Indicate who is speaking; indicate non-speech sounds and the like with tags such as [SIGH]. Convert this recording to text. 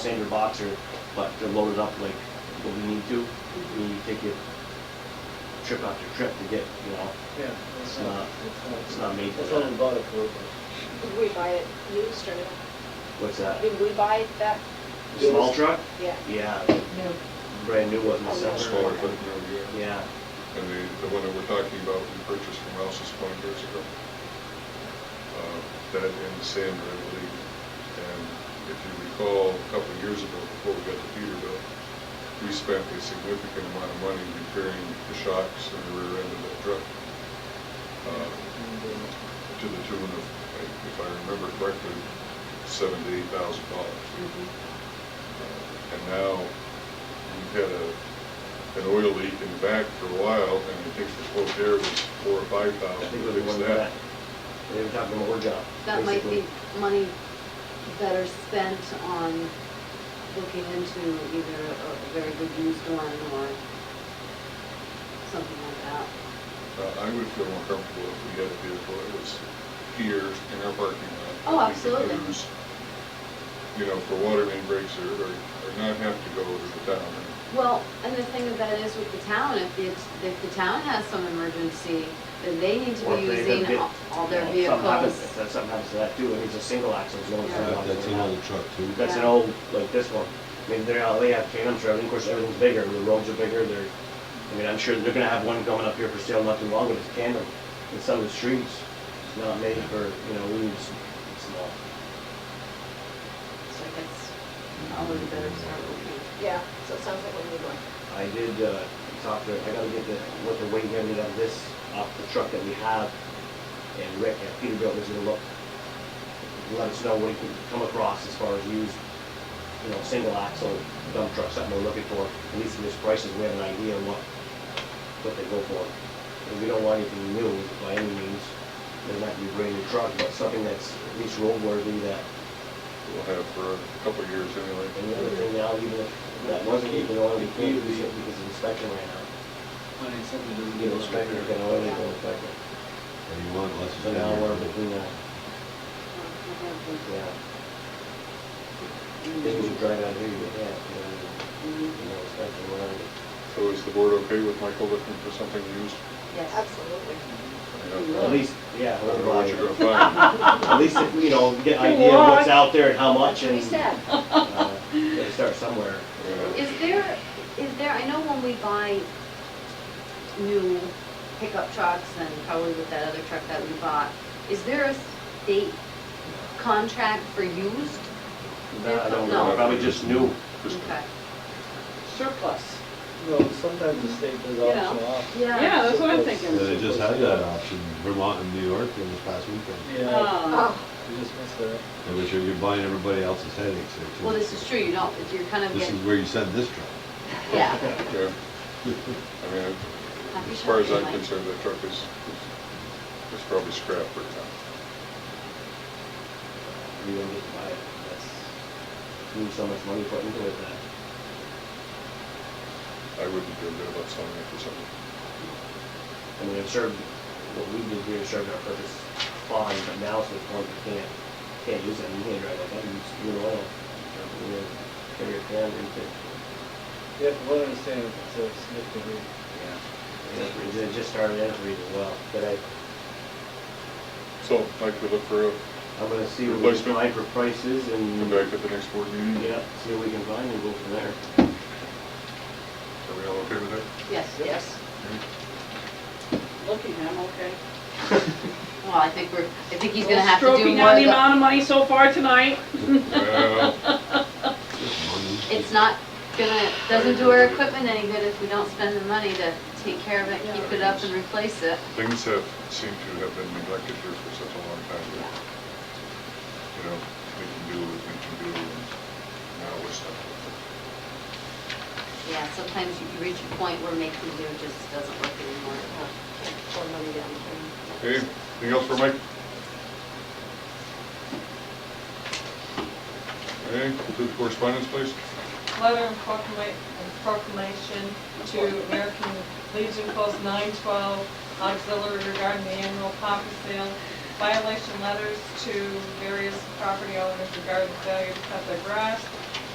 Speaker 1: Sandra Boxer, but they're loaded up like what we need to. We need to take it trip after trip to get, you know,
Speaker 2: Yeah.
Speaker 1: It's not- it's not made for
Speaker 2: It's
Speaker 1: that.
Speaker 2: only bought it for,
Speaker 3: Did we buy it used or not?
Speaker 1: what's that?
Speaker 3: Did we buy that?
Speaker 1: The Small truck?
Speaker 3: Yeah.
Speaker 1: Yeah,
Speaker 3: No.
Speaker 1: brand new
Speaker 4: Oh,
Speaker 1: wasn't
Speaker 3: Small
Speaker 1: separate.
Speaker 5: Smaller than the year.
Speaker 1: Yeah,
Speaker 5: And the, the one that we're talking about, we purchased from Rouse's twenty years ago. Uh, That and the sander, I believe. And if you recall, a couple of years ago, before we got to Peterbilt, we spent a significant amount of money repairing the shocks and the rear end of that truck. Uh, To the tune of, I- if I remember correctly, seven to eight thousand dollars.
Speaker 4: Mm-hmm.
Speaker 5: And now, we've had a, an oil leak in the back for a while, and I think the quote there was four or five
Speaker 1: I
Speaker 5: thousand
Speaker 1: think it was
Speaker 5: to
Speaker 1: the
Speaker 5: fix
Speaker 1: one
Speaker 5: that.
Speaker 1: that, they were talking about our job.
Speaker 4: That might
Speaker 1: basically.
Speaker 4: be money better spent on looking into either a a very good used one or something like that.
Speaker 5: Uh, I would feel more comfortable if we had a vehicle that was here in our parking lot.
Speaker 4: Oh,
Speaker 5: that we could
Speaker 4: absolutely.
Speaker 5: use, You know, for water main breaks or, or or not have to go to the town. and-
Speaker 4: Well, and the thing about it is with the town, if the, if the town has some emergency, then they need to
Speaker 1: Or
Speaker 4: be
Speaker 1: if they
Speaker 4: using
Speaker 1: don't
Speaker 4: all-
Speaker 1: get-
Speaker 4: all their
Speaker 1: you know, if something happens- If
Speaker 4: vehicles.
Speaker 1: that- something happens to that too, and it's a single axle, it's going to.
Speaker 4: Yeah.
Speaker 6: That- That's another truck too.
Speaker 1: That's an
Speaker 4: Yeah.
Speaker 1: old, like this one. I mean, they're, out- they have cams for everything, of course, everything's bigger, the roads are bigger, they're, I mean, I'm sure they're gonna have one coming up here for sale not too long, but it's tandem. And some of the streets, it's not made for, you know, rooms, it's small.
Speaker 4: So I guess probably better start looking.
Speaker 3: Yeah, so it sounds like we need one.
Speaker 1: I did, uh, talk to, I gotta get the, what the weight ended on this, off the truck that we have, and Rick at Peterbilt is gonna look, let us know what he can come across as far as used, you know, single axle dump truck, something we're looking for, at least in this prices, we have an idea of what, what they go for. And we don't want anything new by any means, doesn't have to be a brand new truck, but something that's at least roadworthy that,
Speaker 5: We'll have for a couple of years anyway.
Speaker 1: and the other thing now, even if that wasn't even oil, we can't use it because of inspection right now.
Speaker 2: finding something that
Speaker 1: Get
Speaker 2: doesn't get
Speaker 1: inspected, get
Speaker 2: inspected.
Speaker 1: an oil, get inspected.
Speaker 6: Or you want less
Speaker 1: So
Speaker 6: than
Speaker 1: now we're
Speaker 6: that.
Speaker 1: between that, yeah. Things you drive out here, you have, you know, you know, especially around
Speaker 5: So is the board okay with Michael looking for something used?
Speaker 4: Yes.
Speaker 3: Absolutely.
Speaker 5: You know,
Speaker 1: At least, yeah,
Speaker 5: I don't know what you're
Speaker 1: we're
Speaker 5: gonna
Speaker 4: [LAUGHS]
Speaker 5: find.
Speaker 1: at least, if, you know, get an idea of what's out there and how much and.
Speaker 3: We said,
Speaker 1: uh, Gotta start somewhere.
Speaker 5: Yeah.
Speaker 4: Is there, is there, I know when we buy new pickup trucks and probably with that other truck that we bought, is there a state contract for used?
Speaker 1: I don't
Speaker 4: No.
Speaker 1: know, probably just new.
Speaker 5: Just-
Speaker 4: Okay.
Speaker 7: surplus.
Speaker 2: No, sometimes the state does
Speaker 4: You know.
Speaker 2: auction off.
Speaker 7: Yeah, that's what I'm
Speaker 6: Yeah,
Speaker 7: thinking.
Speaker 6: Uh, They just had that option, Vermont and New York in this past weekend.
Speaker 2: Yeah,
Speaker 4: Uh,
Speaker 7: Um,
Speaker 3: oh,
Speaker 2: you just missed that.
Speaker 6: Yeah, But you're, you're buying everybody else's headaches there too.
Speaker 4: Well, this is true, you don't, you're kind of
Speaker 6: This is
Speaker 4: getting,
Speaker 6: where you send this truck.
Speaker 4: [LAUGHS] yeah.
Speaker 5: Yeah. I mean,
Speaker 4: Happy
Speaker 5: as far as
Speaker 4: shopping,
Speaker 5: I'm
Speaker 4: Mike.
Speaker 5: concerned, that truck is, is- is probably scrap for now.
Speaker 1: You don't get to buy it, that's, you need so much money put into it that.
Speaker 5: I wouldn't feel good about selling it for something.
Speaker 1: I mean, it served, what we did here served our purpose fine, but now it's the point you can't, can't use it, you can't drive like that, you use fuel oil. You know, Carry a can, and it,
Speaker 2: You have to understand it's a significant reason.
Speaker 1: It just- it just started out to read as well, but I,
Speaker 5: So, Mike, we look for a,
Speaker 1: I'm gonna see what we can find for prices
Speaker 5: come
Speaker 1: and,
Speaker 5: back at the next board meeting?
Speaker 1: yeah, see what we can find and go from there.
Speaker 5: Are we all okay with that?
Speaker 4: Yes,
Speaker 3: yes.
Speaker 7: looking, I'm okay.
Speaker 4: well, I think we're, I think he's gonna have to do
Speaker 7: Stroking
Speaker 4: more
Speaker 7: out
Speaker 4: of
Speaker 7: the
Speaker 4: the,
Speaker 7: amount of money so far tonight.
Speaker 5: [LAUGHS] Well,
Speaker 4: it's not gonna, doesn't do our equipment any good if we don't spend the money to take care of it, keep it up and replace it.
Speaker 5: Things have, seem to have been neglected here for such a long time. that, You know, we can do, what we can do, and now we're stuck with
Speaker 4: Yeah, sometimes you you reach a point where making do just doesn't work anymore.
Speaker 3: Can't pour money down the
Speaker 5: it. Okay, anything else for Mike? Okay, do the correspondence, please.
Speaker 8: letter and proclama- and proclamation to American Legion Post 912 Auxiliary regarding the annual poppy sale. Violation letters to various property owners regarding failure to cut their grass.